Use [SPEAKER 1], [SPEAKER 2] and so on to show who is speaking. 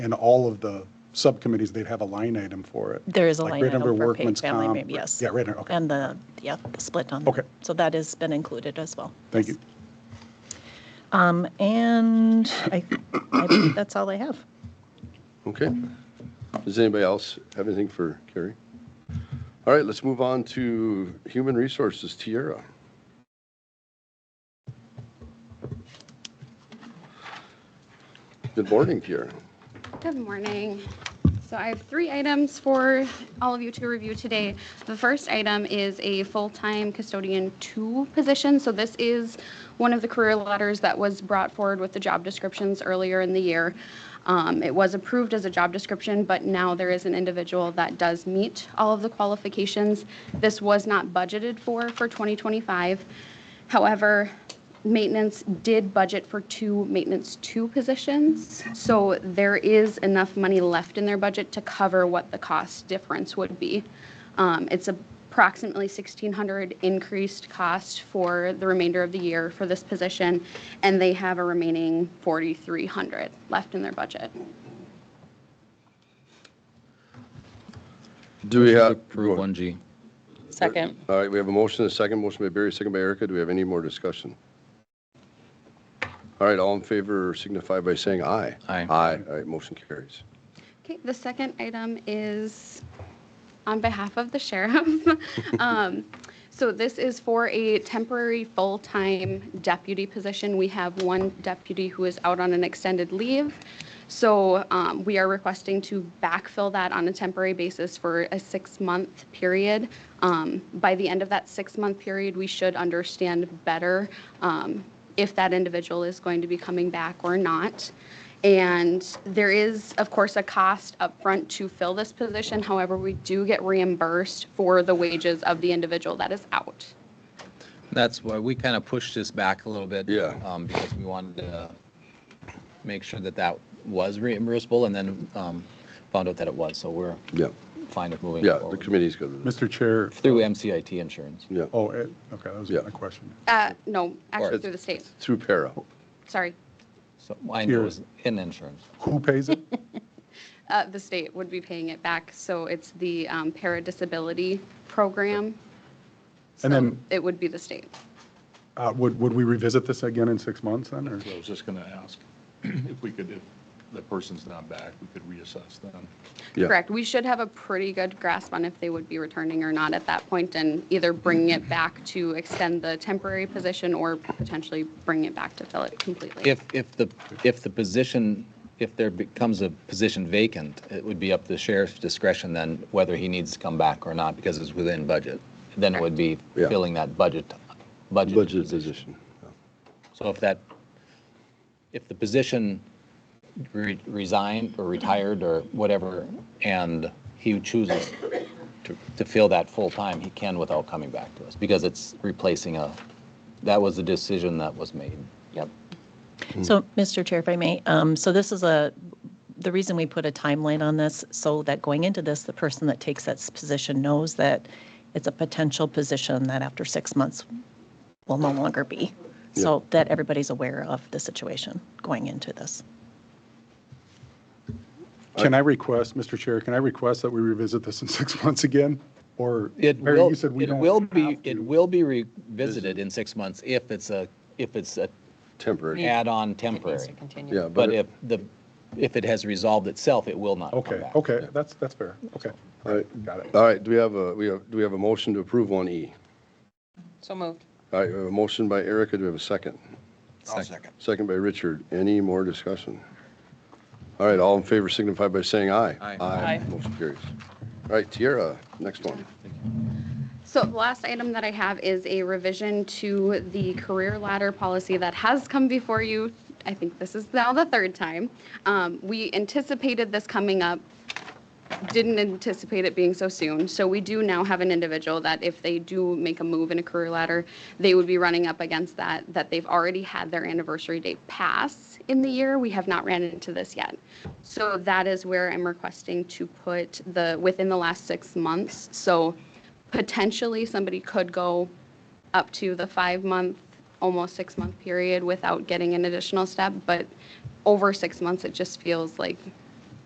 [SPEAKER 1] in all of the subcommittees, they'd have a line item for it.
[SPEAKER 2] There is a
[SPEAKER 1] Like
[SPEAKER 2] line
[SPEAKER 1] right under
[SPEAKER 2] item for paid
[SPEAKER 1] workman's
[SPEAKER 2] family,
[SPEAKER 1] comp,
[SPEAKER 2] maybe,
[SPEAKER 1] right-
[SPEAKER 2] yes.
[SPEAKER 1] yeah, right under- okay.
[SPEAKER 2] And the, yeah, the split on.
[SPEAKER 1] Okay.
[SPEAKER 2] So that has been included as well.
[SPEAKER 1] Thank you.
[SPEAKER 2] Um, and I, I think that's all I have.
[SPEAKER 3] Okay. Does anybody else have anything for Carrie? All right, let's move on to Human Resources, Tiara. Good morning, Tiara.
[SPEAKER 4] Good morning. So I have three items for all of you to review today. The first item is a full-time custodian two position. So this is one of the career letters that was brought forward with the job descriptions earlier in the year. Um, It was approved as a job description, but now there is an individual that does meet all of the qualifications. This was not budgeted for, for 2025. However, maintenance did budget for two maintenance two positions. So there is enough money left in their budget to cover what the cost difference would be. Um, It's approximately 1,600 increased cost for the remainder of the year for this position, and they have a remaining 4,300 left in their budget.
[SPEAKER 3] Do we have?
[SPEAKER 5] Approve 1G.
[SPEAKER 6] Second.
[SPEAKER 3] All right, we have a motion, a second, motion by Barry, second by Erica. Do we have any more discussion? All right, all in favor signify by saying aye.
[SPEAKER 5] Aye.
[SPEAKER 3] Aye, all right, motion carries.
[SPEAKER 4] Okay, the second item is on behalf of the sheriff. Um, So this is for a temporary full-time deputy position. We have one deputy who is out on an extended leave. So um, we are requesting to backfill that on a temporary basis for a six-month period. Um, By the end of that six-month period, we should understand better um, if that individual is going to be coming back or not. And there is, of course, a cost upfront to fill this position. However, we do get reimbursed for the wages of the individual that is out.
[SPEAKER 5] That's why we kind of pushed this back a little bit.
[SPEAKER 3] Yeah.
[SPEAKER 5] um, Because we wanted to make sure that that was reimbursable and then um, found out that it was. So we're
[SPEAKER 3] Yeah,
[SPEAKER 5] fine with moving
[SPEAKER 3] yeah, the
[SPEAKER 5] forward
[SPEAKER 3] committee's good with it.
[SPEAKER 1] Mr. Chair,
[SPEAKER 5] through MCIT insurance.
[SPEAKER 3] Yeah,
[SPEAKER 1] oh, eh, okay, that was
[SPEAKER 3] Yeah.
[SPEAKER 1] my question.
[SPEAKER 4] Uh, No,
[SPEAKER 5] Or-
[SPEAKER 4] actually through the state,
[SPEAKER 3] through para.
[SPEAKER 4] sorry.
[SPEAKER 5] So I know it
[SPEAKER 1] Here.
[SPEAKER 5] was in insurance.
[SPEAKER 1] Who pays it?
[SPEAKER 4] Uh, The state would be paying it back, so it's the um, paradisability program.
[SPEAKER 1] And
[SPEAKER 4] So
[SPEAKER 1] then-
[SPEAKER 4] it would be the state.
[SPEAKER 1] Uh, Would, would we revisit this again in six months then, or?
[SPEAKER 7] I was just going to ask if we could, if the person's not back, we could reassess them.
[SPEAKER 3] Yeah.
[SPEAKER 4] Correct. We should have a pretty good grasp on if they would be returning or not at that point and either bringing it back to extend the temporary position or potentially bring it back to fill it completely.
[SPEAKER 5] If, if the, if the position, if there becomes a position vacant, it would be up to the sheriff's discretion then whether he needs to come back or not because it's within budget. Then it would be
[SPEAKER 3] Yeah.
[SPEAKER 5] filling that budget, budget
[SPEAKER 3] Budget
[SPEAKER 5] position.
[SPEAKER 3] position.
[SPEAKER 5] So if that, if the position re- resigned or retired or whatever, and he chooses to, to fill that full-time, he can without coming back to us, because it's replacing a, that was the decision that was made.
[SPEAKER 6] Yep.
[SPEAKER 2] So, Mr. Chair, if I may, um, so this is a, the reason we put a timeline on this, so that going into this, the person that takes that s- position knows that it's a potential position that after six months will no longer be. So that everybody's aware of the situation going into this.
[SPEAKER 1] Can I request, Mr. Chair, can I request that we revisit this in six months again? Or,
[SPEAKER 5] It
[SPEAKER 1] Mary,
[SPEAKER 5] will,
[SPEAKER 1] you said we
[SPEAKER 5] it
[SPEAKER 1] don't
[SPEAKER 5] will be,
[SPEAKER 1] have to.
[SPEAKER 5] it will be revisited in six months if it's a, if it's a
[SPEAKER 3] Temporary.
[SPEAKER 5] add-on
[SPEAKER 6] It needs to
[SPEAKER 5] temporary.
[SPEAKER 6] continue.
[SPEAKER 3] Yeah,
[SPEAKER 5] But
[SPEAKER 3] but,
[SPEAKER 5] if
[SPEAKER 3] it-
[SPEAKER 5] the, if it has resolved itself, it will not come
[SPEAKER 1] Okay,
[SPEAKER 5] back.
[SPEAKER 1] okay, that's, that's fair, okay,
[SPEAKER 3] all right,
[SPEAKER 1] got it.
[SPEAKER 3] all right, do we have a, we have, do we have a motion to approve 1E?
[SPEAKER 6] So moved.
[SPEAKER 3] All right, we have a motion by Erica, do we have a second?
[SPEAKER 5] Second.
[SPEAKER 3] Second by Richard, any more discussion? All right, all in favor signify by saying aye.
[SPEAKER 5] Aye.
[SPEAKER 6] Aye.
[SPEAKER 3] Motion carries. All right, Tiara, next one.
[SPEAKER 4] So the last item that I have is a revision to the career ladder policy that has come before you. I think this is now the third time. Um, We anticipated this coming up, didn't anticipate it being so soon. So we do now have an individual that if they do make a move in a career ladder, they would be running up against that, that they've already had their anniversary date pass in the year. We have not ran into this yet. So that is where I'm requesting to put the, within the last six months. So potentially somebody could go up to the five-month, almost six-month period without getting an additional step, but over six months, it just feels like